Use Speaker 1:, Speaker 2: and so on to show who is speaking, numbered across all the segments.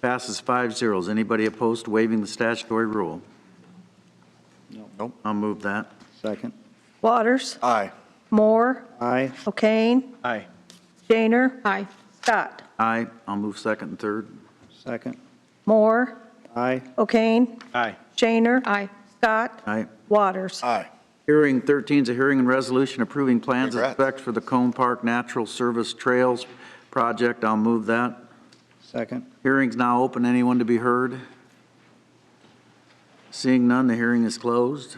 Speaker 1: Passes five zeros. Anybody opposed to waiving the statutory rule?
Speaker 2: Nope.
Speaker 1: I'll move that.
Speaker 2: Second.
Speaker 3: Waters?
Speaker 2: Aye.
Speaker 3: Moore?
Speaker 2: Aye.
Speaker 3: O'Kane?
Speaker 2: Aye.
Speaker 3: Shaner? Aye. Scott?
Speaker 1: Aye, I'll move second and third.
Speaker 2: Second.
Speaker 3: Moore?
Speaker 2: Aye.
Speaker 3: O'Kane?
Speaker 2: Aye.
Speaker 3: Shaner? Aye. Scott?
Speaker 1: Aye.
Speaker 3: Waters?
Speaker 2: Aye.
Speaker 1: Hearing 13 is a hearing and resolution approving plans and
Speaker 2: Congrats.
Speaker 1: specs for the Cone Park Natural Service Trails Project. I'll move that.
Speaker 2: Second.
Speaker 1: Hearing's now open. Anyone to be heard? Seeing none, the hearing is closed.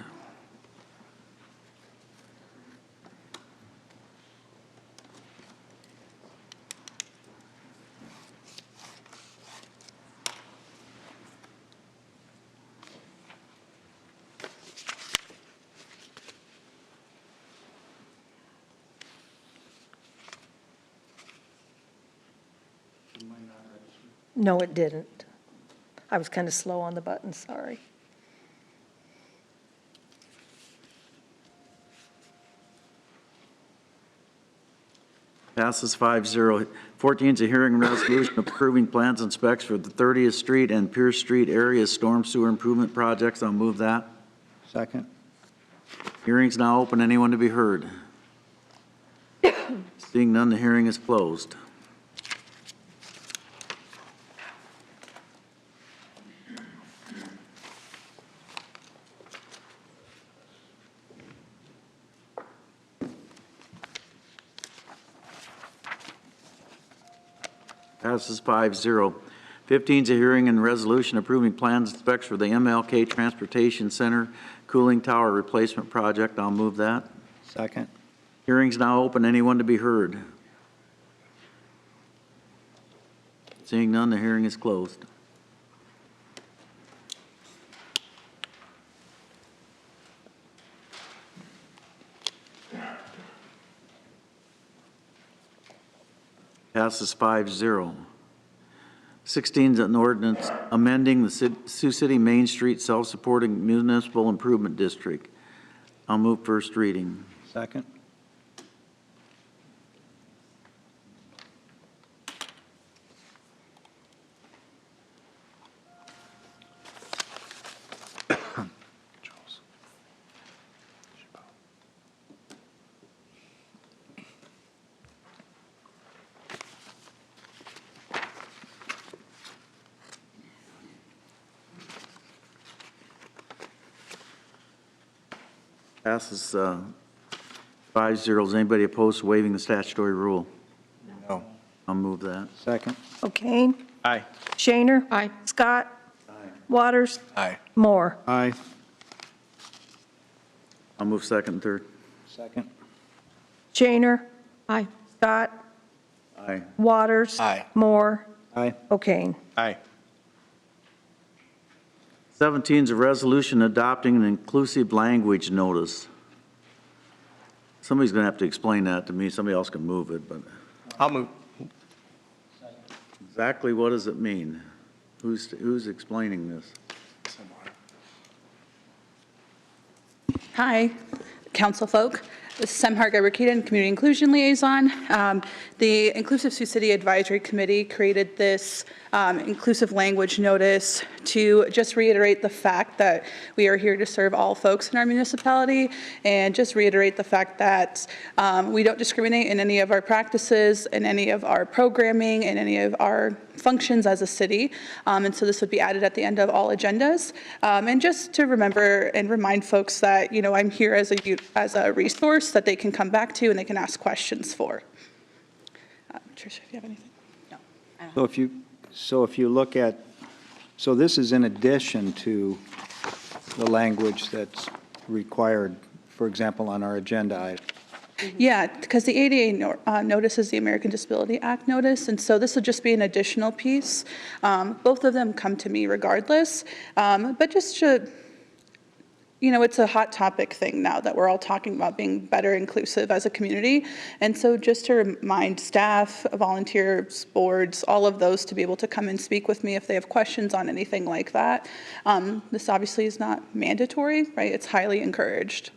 Speaker 3: No, it didn't. I was kind of slow on the button, sorry.
Speaker 1: Passes 5-0. 14 is a hearing and resolution approving plans and specs for the 30th Street and Pierce Street area storm sewer improvement projects. I'll move that.
Speaker 2: Second.
Speaker 1: Hearing's now open. Anyone to be heard? Seeing none, the hearing is closed. Passes 5-0. 15 is a hearing and resolution approving plans and specs for the MLK Transportation Center Cooling Tower Replacement Project. I'll move that.
Speaker 2: Second.
Speaker 1: Hearing's now open. Anyone to be heard? Seeing none, the hearing is closed. Passes five zero. Sixteen is an ordinance amending the Ci- Sioux City Main Street Self-Supporting Municipal Improvement District. I'll move first reading.
Speaker 2: Second.
Speaker 1: Passes uh, five zeros. Anybody opposed to waiving the statutory rule?
Speaker 2: No.
Speaker 1: I'll move that.
Speaker 2: Second.
Speaker 3: O'Kane?
Speaker 2: Aye.
Speaker 3: Shaner? Aye. Scott? Waters?
Speaker 2: Aye.
Speaker 3: Moore?
Speaker 2: Aye.
Speaker 1: I'll move second and third.
Speaker 2: Second.
Speaker 3: Shaner? Aye. Scott?
Speaker 1: Aye.
Speaker 3: Waters?
Speaker 2: Aye.
Speaker 3: Moore?
Speaker 2: Aye.
Speaker 3: O'Kane?
Speaker 2: Aye.
Speaker 1: 17 is a resolution adopting an inclusive language notice. Somebody's going to have to explain that to me. Somebody else can move it, but
Speaker 2: I'll move.
Speaker 1: exactly what does it mean? Who's, who's explaining this?
Speaker 4: Hi, council folk. This is Sem Harga-Rakita, Community Inclusion Liaison. Um, The Inclusive Sioux City Advisory Committee created this um, inclusive language notice to just reiterate the fact that we are here to serve all folks in our municipality, and just reiterate the fact that um, we don't discriminate in any of our practices, in any of our programming, in any of our functions as a city. Um, And so this would be added at the end of all agendas. Um, And just to remember and remind folks that, you know, I'm here as a, u- as a resource that they can come back to and they can ask questions for. Uh, Tricia, if you have anything? No.
Speaker 2: So if you, so if you look at, so this is in addition to the language that's required, for example, on our agenda item.
Speaker 4: Yeah, because the ADA no- uh, notice is the American Disability Act notice, and so this will just be an additional piece. Um, Both of them come to me regardless, Um, but just to, you know, it's a hot topic thing now that we're all talking about being better inclusive as a community. And so just to remind staff, volunteers, boards, all of those to be able to come and speak with me if they have questions on anything like that. Um, This obviously is not mandatory, right? It's highly encouraged.